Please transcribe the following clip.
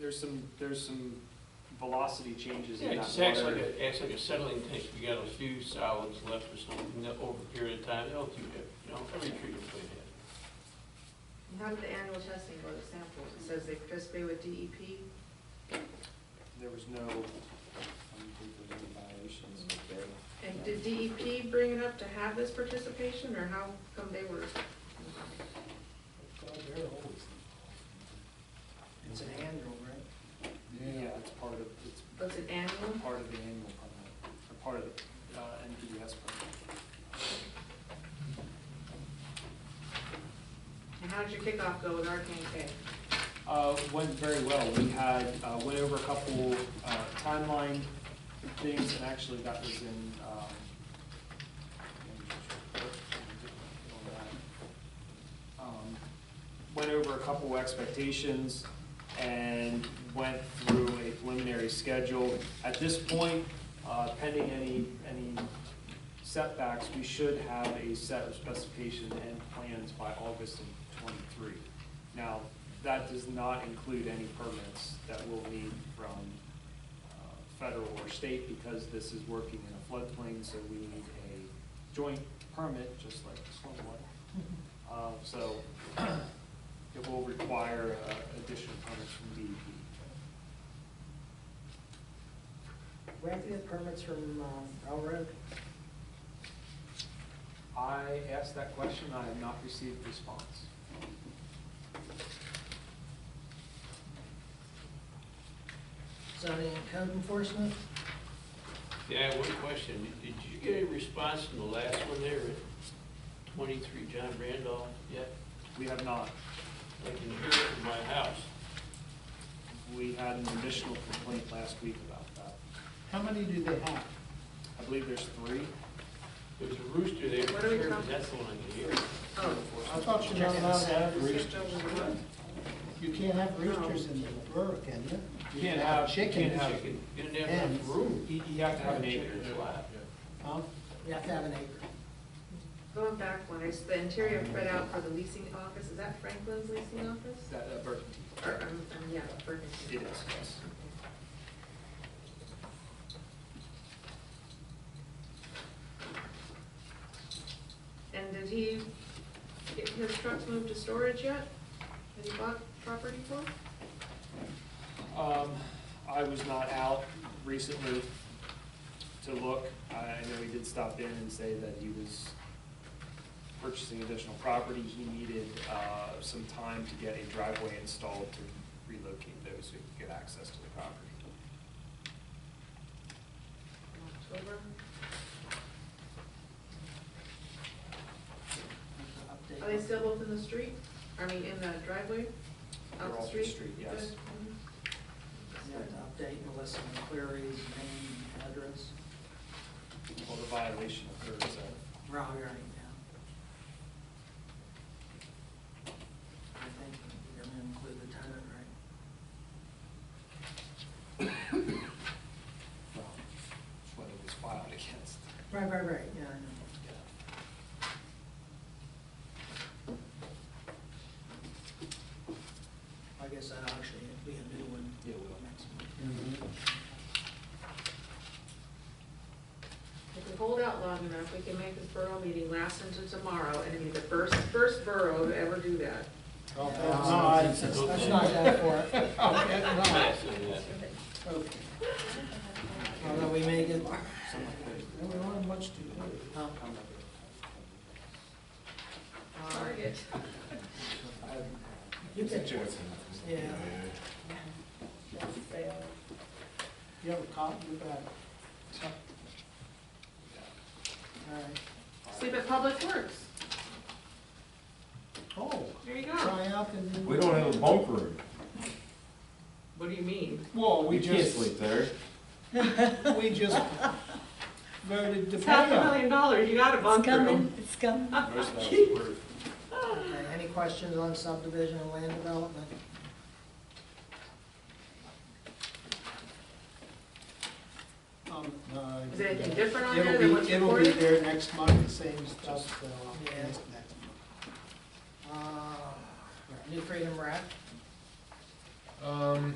there's some, there's some velocity changes Yeah, in it that just acts like water. a, acts like a settling tank, you got a few solids left or something, that over a period of time, they'll do that, you know, every treatment plant has. How did the annual testing go to samples? It says they participated with E DEP. There was no, I don't think there were any violations. And did DEP bring it up to have this participation, or how come they were? It's an annual, right? Yeah, it's part of, it's Was it annual? part of the annual permit, or part of the uh, NPDS permit. And how did your kickoff go with Arcane Uh, Went very well. We had, uh, went over a couple uh, timeline things, and actually that was in, um, um, went over a couple expectations and went through a preliminary schedule. At this point, uh, pending any, any setbacks, we should have a set of specifications and plans by August of twenty-three. Now, that does not include any permits that we'll need from uh, federal or state because this is working in a floodplain, so we need a joint permit, just like the stormwater. Uh, So it will require uh, additional permits from E DEP. Where do you get permits from um, railroad? I asked that question, I have not received a response. Zoning and code enforcement? Yeah, one question, did you get a response from the last one there at twenty-three John Randolph yet? We have not. I can hear it from my house. We had an additional complaint last week about that. How many do they have? I believe there's three. There's a rooster there, What are we Sure, talking- that's the one I can hear. Oh. I thought you're not allowed to have roosters. K? You can't have roosters in the borough, can you? You can't have- Chickens. can't have- Chicken, you didn't have enough Hens. room. You you have to have an acre. Chickens alive. Huh? You have to have an acre. Going back one, it's the interior spread out for the leasing office, is that Franklin's leasing office? That, uh, Burger King. Or, um, um, yeah, Ferguson. It is, yes. And did he get his trucks moved to storage yet? That he bought property for? Um, I was not out recently to look. I I know he did stop in and say that he was purchasing additional property. He needed, uh, some time to get a driveway installed to relocate those so he could get access to the property. Oh, In October? Are they still both in the street? I mean, in the driveway? They're Out off the the street? street, yes. Good. Mhm. You have to update Melissa McQuarrie's name, address, Well, the violation uh, occurs at We're all here right now. I think you're gonna include the tenant, right? well, what it was filed against. Right, right, right, yeah, I know. I guess that actually would be a new one. Yeah, we will. Next If we hold out long enough, we can make this borough meeting last until tomorrow and it'll be the first, first borough to ever do that. month. No, it's- it's- Let's not go for it. Oh, Okay, Last one, yeah. no. Okay. Although we may get, we don't have much to do. Huh? Target. You can, yeah. You have a cop, you got it. All right. Sleep at Public Works. Oh, There you go. try out the new. We don't have a bunk room. What do you mean? Well, we You can't just, sleep there. we just voted to It's pay half a up. million dollars, you got a bunk room. It's coming. Most of that was approved. Okay, Any questions on subdivision and land development? Um, no. Is there anything different on there uh, It'll than be, what's it'll be recorded? there next month, the same stuff, so, Yeah. next, next month. Uh, New Freedom Rec? Um,